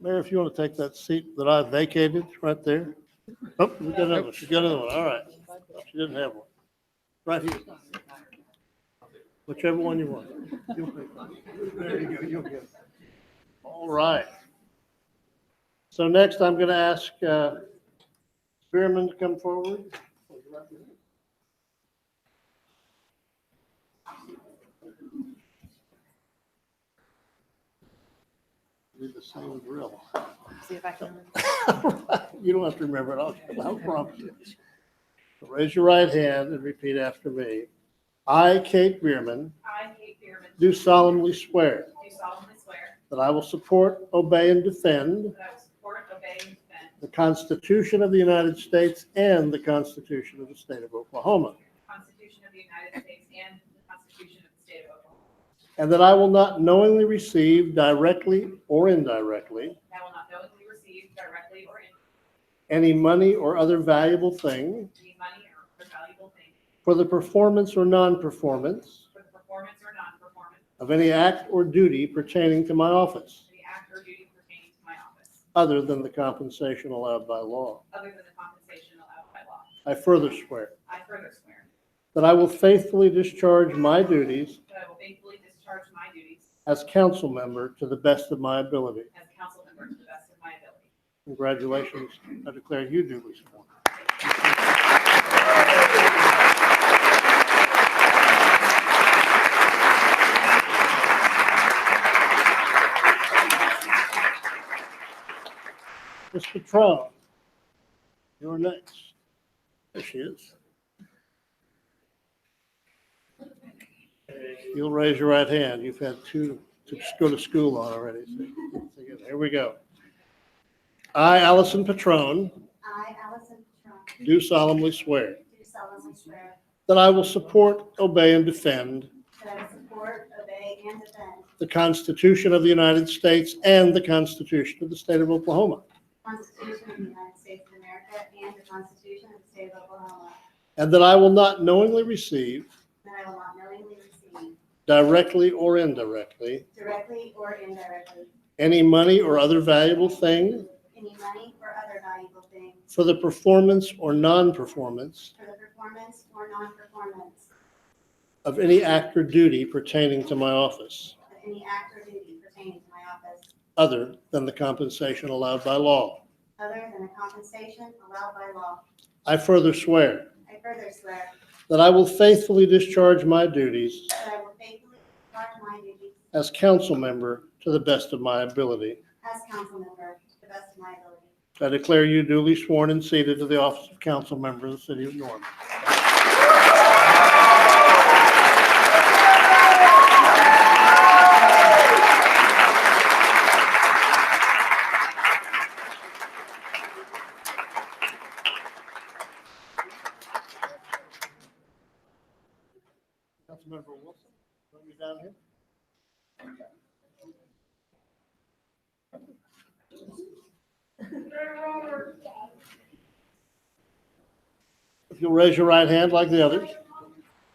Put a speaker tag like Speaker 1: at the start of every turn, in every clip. Speaker 1: Mayor, if you want to take that seat that I vacated right there. Oh, we got another, one. she got another one, all right. She didn't have one. Right here. Whichever one you want. You'll pick. There you go, you'll get it. All right. So next, I'm going to ask uh, Spearman to come forward. Do the same drill.
Speaker 2: See if I can.
Speaker 1: You don't have to remember it, I'll, I'll prompt you. Raise your right hand and repeat after me. I, Kate Bierman,
Speaker 3: I, Kate Bierman, do
Speaker 1: do solemnly swear
Speaker 3: solemnly swear
Speaker 1: that I will support, obey, and defend
Speaker 3: that I will support, obey, and defend
Speaker 1: the Constitution of the United States and the Constitution of the State of Oklahoma,
Speaker 3: the Constitution of the United States and the Constitution of the State of Oklahoma.
Speaker 1: and that I will not knowingly receive directly or indirectly
Speaker 3: That I will not knowingly receive directly or indirectly
Speaker 1: any money or other valuable thing
Speaker 3: any money or other valuable thing
Speaker 1: for the performance or non-performance
Speaker 3: for the performance or non-performance
Speaker 1: of any act or duty pertaining to my office,
Speaker 3: of the act or duty pertaining to my office,
Speaker 1: other than the compensation allowed by law.
Speaker 3: other than the compensation allowed by law.
Speaker 1: I further swear
Speaker 3: I further swear
Speaker 1: that I will faithfully discharge my duties
Speaker 3: that I will faithfully discharge my duties
Speaker 1: as council member to the best of my ability.
Speaker 3: as council member to the best of my ability.
Speaker 1: Congratulations. I declare you duly sworn. Mr. Trump, you're next. There she is. You'll raise your right hand. You've had two to go to school on already. so- Here we go. I, Allison Petrone,
Speaker 4: I, Allison Petrone,
Speaker 1: do solemnly swear
Speaker 4: do solemnly swear
Speaker 1: that I will support, obey, and defend
Speaker 4: that I will support, obey, and defend
Speaker 1: the Constitution of the United States and the Constitution of the State of Oklahoma,
Speaker 4: the Constitution of the United States of America and the Constitution of the State of Oklahoma,
Speaker 1: and that I will not knowingly receive,
Speaker 4: that I will not knowingly receive,
Speaker 1: directly or indirectly,
Speaker 4: directly or indirectly,
Speaker 1: any money or other valuable thing
Speaker 4: any money or other valuable thing
Speaker 1: for the performance or non-performance
Speaker 4: for the performance or non-performance
Speaker 1: of any act or duty pertaining to my office,
Speaker 4: of any act or duty pertaining to my office,
Speaker 1: other than the compensation allowed by law.
Speaker 4: other than the compensation allowed by law.
Speaker 1: I further swear
Speaker 4: I further swear
Speaker 1: that I will faithfully discharge my duties
Speaker 4: that I will faithfully perform my duties
Speaker 1: as council member to the best of my ability.
Speaker 4: as council member to the best of my ability.
Speaker 1: I declare you duly sworn and seated to the office of council member of the city of Norman. Councilmember Wilson, bring me down here. If you'll raise your right hand like the others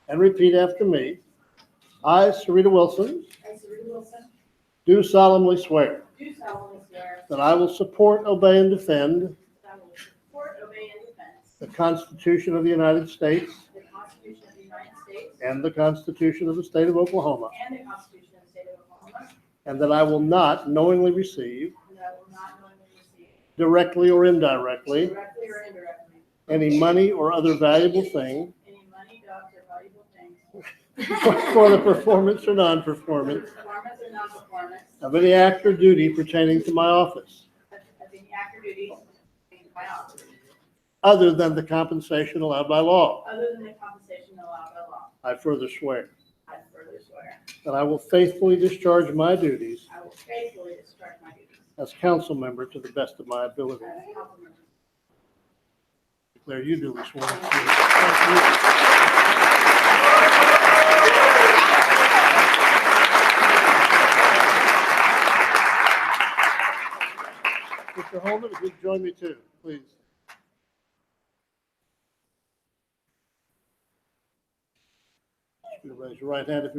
Speaker 1: and repeat after me. I, Sarita Wilson,
Speaker 3: I, Serena Wilson,
Speaker 1: do solemnly swear
Speaker 3: do solemnly swear
Speaker 1: that I will support, obey, and defend
Speaker 3: that I will support, obey, and defend
Speaker 1: the Constitution of the United States
Speaker 3: the Constitution of the United States
Speaker 1: and the Constitution of the State of Oklahoma,
Speaker 3: And the Constitution of the State of Oklahoma.
Speaker 1: and that I will not knowingly receive,
Speaker 3: And that I will not knowingly receive
Speaker 1: directly or indirectly,
Speaker 3: directly or indirectly
Speaker 1: any money or other valuable thing
Speaker 3: any money, dogs, or valuable things.
Speaker 1: for the performance or non-performance
Speaker 3: Performance or non-performance
Speaker 1: of any act or duty pertaining to my office,
Speaker 3: of of any active duties in my office,
Speaker 1: other than the compensation allowed by law.
Speaker 3: other than the compensation allowed by law.
Speaker 1: I further swear
Speaker 3: I further swear,
Speaker 1: that I will faithfully discharge my duties
Speaker 3: I will faithfully discharge my duties
Speaker 1: as council member to the best of my ability.
Speaker 3: as a council member.
Speaker 1: Declare you duly sworn. Mr. Holman, if you'd join me too, please. Raise your right hand if you